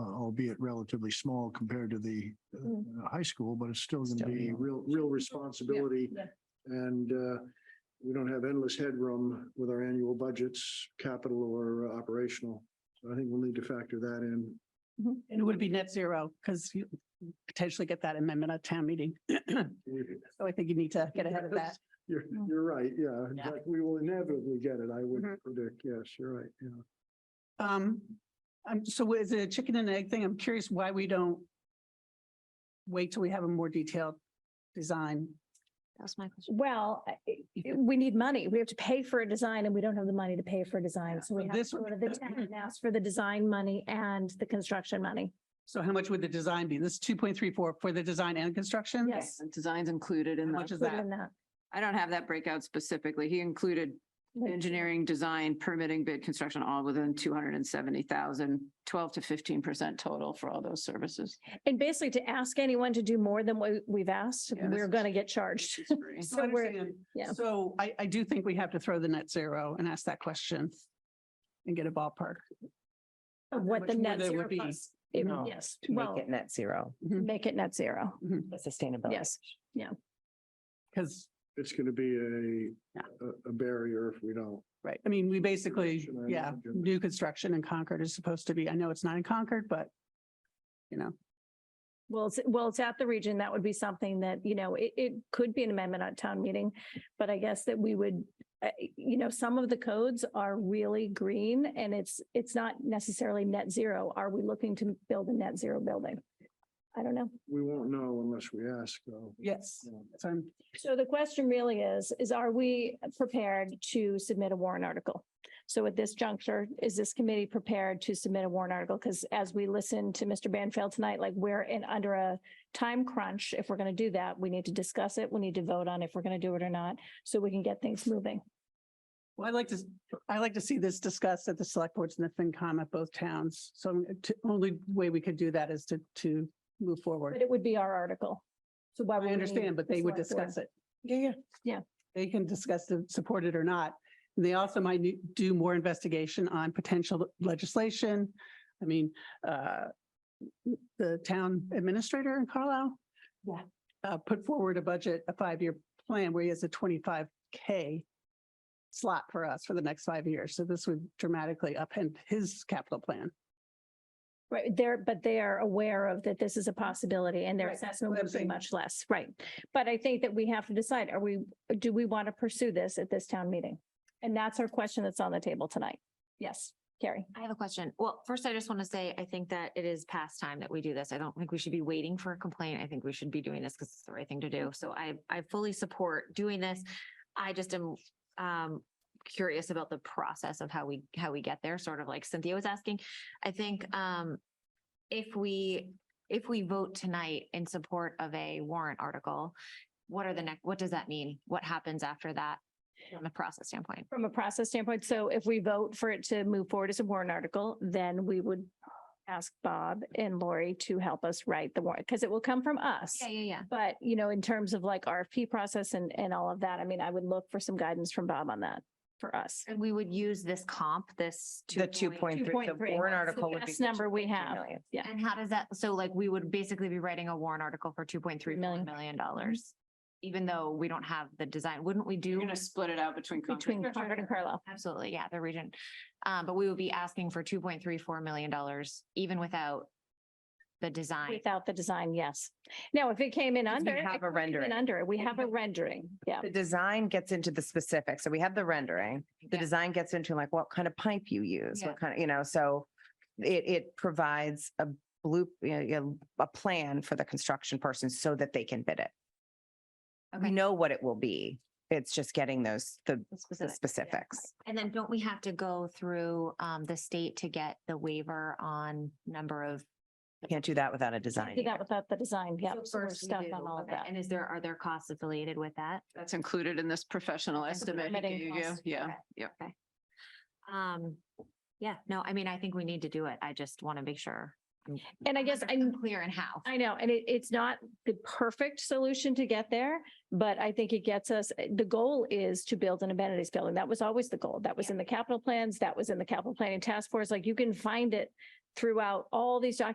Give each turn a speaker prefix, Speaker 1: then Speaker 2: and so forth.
Speaker 1: uh, albeit relatively small compared to the uh,
Speaker 2: Mm.
Speaker 1: uh, high school, but it's still gonna
Speaker 3: Still
Speaker 1: be
Speaker 3: young.
Speaker 1: real, real responsibility.
Speaker 2: yeah.
Speaker 1: And uh, we don't have endless headroom with our annual budgets, capital or uh, operational. So I think we'll need to factor that in.
Speaker 4: And it would be net zero because you potentially get that amendment at town meeting. So I think you need to get ahead of that.
Speaker 1: You're,
Speaker 2: Mm.
Speaker 1: you're right, yeah. In
Speaker 4: Yeah.
Speaker 1: fact, we will inevitably get it, I would
Speaker 4: Mhm.
Speaker 1: predict. Yes, you're right, yeah.
Speaker 4: Um, I'm, so is it a chicken and egg thing? I'm curious why we don't wait till we have a more detailed design.
Speaker 3: That was my question.
Speaker 2: Well, I- I- we need money. We have to pay for a design and we don't have the money to pay for a design. So we
Speaker 4: So
Speaker 2: have
Speaker 4: this
Speaker 2: to go to
Speaker 4: would-
Speaker 2: the town and ask for the design money and the construction money.
Speaker 4: So how much would the design be? This two point three four for the design and construction?
Speaker 2: Yes.
Speaker 3: And Desig's included in
Speaker 4: How much
Speaker 3: the,
Speaker 4: is that?
Speaker 2: Including that.
Speaker 3: I don't have that breakout specifically. He included engineering, design, permitting, bid, construction, all within 270,000, 12 to 15% total for all those services.
Speaker 2: And basically to ask anyone to do more than what we've asked,
Speaker 3: Yeah, this
Speaker 2: we're
Speaker 3: is-
Speaker 2: going to get charged.
Speaker 3: It's free.
Speaker 4: So I
Speaker 2: So we're-
Speaker 4: understand.
Speaker 2: yeah.
Speaker 4: So I, I do think we have to throw the net zero and ask that question and get a ballpark.
Speaker 2: Of what
Speaker 4: much
Speaker 2: the
Speaker 4: more
Speaker 2: net
Speaker 4: there would
Speaker 2: zero
Speaker 4: be.
Speaker 2: costs. It-
Speaker 5: No,
Speaker 2: Yes,
Speaker 5: to
Speaker 2: well,
Speaker 5: make it net zero,
Speaker 4: Mm-hmm.
Speaker 2: make it net zero.
Speaker 6: Oh.
Speaker 5: sustainability.
Speaker 2: Yes.
Speaker 4: Because,
Speaker 1: It's gonna be
Speaker 4: Yeah.
Speaker 1: a, a- a barrier if we don't.
Speaker 4: right, I mean, we basically,
Speaker 1: Should I
Speaker 4: yeah,
Speaker 1: imagine?
Speaker 4: new construction in Concord is supposed to be, I know it's not in Concord, but you know,
Speaker 2: Well, it's, well, it's at the region. That would be something that, you know, it, it could be an amendment at town meeting. But I guess that we would, uh, you know, some of the codes are really green and it's, it's not necessarily net zero. Are we looking to build a net zero building? I don't know.
Speaker 1: We won't know unless we ask, though.
Speaker 4: yes.
Speaker 1: Yeah.
Speaker 4: So I'm,
Speaker 2: So the question really is, is are we prepared to submit a warrant article? So at this juncture, is this committee prepared to submit a warrant article? Because as we listen to Mr. Banfield tonight, like we're in under a time crunch. If we're going to do that, we need to discuss it. We need to vote on if we're going to do it or not, so we can get things moving.
Speaker 4: well, I like to, I like to see this discussed at the select boards and the FinCom at both towns. So the only way we could do that is to, to move
Speaker 2: But
Speaker 4: forward.
Speaker 2: it would be our article. So why? would
Speaker 4: I
Speaker 2: we need
Speaker 4: understand, but
Speaker 2: the
Speaker 4: they would
Speaker 2: select board?
Speaker 4: discuss it. Yeah, yeah.
Speaker 2: Yeah.
Speaker 4: They can discuss the support it or not. And They also might need- do more investigation on potential legislation. I mean, uh, the town administrator in Carlisle.
Speaker 2: Yeah.
Speaker 4: Uh, put forward a budget, a five-year plan where he has a twenty-five K slot for us for the next five years. So this would dramatically upend his capital plan.
Speaker 2: Right, they're, but they are aware of that this is a possibility and their
Speaker 4: Right,
Speaker 2: assessment
Speaker 4: what I'm
Speaker 2: would be
Speaker 4: saying.
Speaker 2: much less, right? But I think that we have to decide, are we, do we want to pursue this at this town meeting? And that's our question that's on the table tonight. Yes, Carrie.
Speaker 6: I have a question. Well, first, I just want to say, I think that it is past time that we do this. I don't think we should be waiting for a complaint. I think we should be doing this because it's the right thing to do. So I, I fully support doing this. I just am, um, curious about the process of how we, how we get there, sort of like Cynthia was asking. I think, um, if we, if we vote tonight in support of a warrant article, what are the next, what does that mean? What happens after that from a process standpoint?
Speaker 2: From a process standpoint, so if we vote for it to move forward as a warrant article, then we would ask Bob and Lori to help us write the warrant, because it will come from us.
Speaker 6: Yeah, yeah, yeah.
Speaker 2: But, you know, in terms of like RFP process and, and all of that, I mean, I would look for some guidance from Bob on that for us.
Speaker 6: And we would use this comp, this.
Speaker 5: The two point three, the
Speaker 2: 2.3.
Speaker 5: warrant
Speaker 2: So
Speaker 5: article would be.
Speaker 2: best
Speaker 5: the
Speaker 2: number we
Speaker 5: 2.3
Speaker 2: have.
Speaker 5: million.
Speaker 2: Yeah.
Speaker 6: And how does that, so like we would basically be writing a warrant article for two point three
Speaker 2: Million.
Speaker 6: million dollars. Even though we don't have the design, wouldn't we
Speaker 3: You're
Speaker 6: do?
Speaker 3: going to split it out between.
Speaker 2: between Concord and Carlisle.
Speaker 6: Absolutely, yeah, the region. Um, but we would be asking for two point three four million dollars even without the design.
Speaker 2: Without the design, yes. Now, if it came in
Speaker 5: Because we
Speaker 2: under. it
Speaker 5: have a
Speaker 2: could come
Speaker 5: rendering.
Speaker 2: in Under, we have a rendering, yeah.
Speaker 5: The design gets into the specifics. So we have the rendering. The
Speaker 6: Yeah.
Speaker 5: design gets into like what kind of pipe you use,
Speaker 6: Yeah.
Speaker 5: what kind of, you know, so it, it provides a blue, you know, you know, a plan for the construction person so that they can bid it. We
Speaker 6: Okay.
Speaker 5: know what it will be. It's just getting those, the
Speaker 6: The
Speaker 5: the
Speaker 6: specific.
Speaker 5: specifics.
Speaker 6: And then don't we have to go through um the state to get the waiver on number of?
Speaker 5: Can't do that without a design.
Speaker 2: Do that without the design, yeah.
Speaker 6: So
Speaker 2: So we're
Speaker 6: first we
Speaker 2: stuck
Speaker 6: do,
Speaker 2: on all of
Speaker 6: okay.
Speaker 2: that.
Speaker 6: And is there, are there costs affiliated with that?
Speaker 3: That's included in this professional
Speaker 6: And
Speaker 3: estimate. he
Speaker 6: permitting
Speaker 3: gave you.
Speaker 6: costs.
Speaker 3: Yeah,
Speaker 6: Okay.
Speaker 3: yeah.
Speaker 6: Okay. Um, yeah, no, I mean, I think we need to do it. I just want to make sure.
Speaker 2: And I guess I'm,
Speaker 6: Clear in how.
Speaker 2: I know, and it, it's not the perfect solution to get there, but I think it gets us, eh, the goal is to build an amenities building. That was always the goal. That was in the capital plans, that was in the capital planning task force. Like you can find it throughout all these documents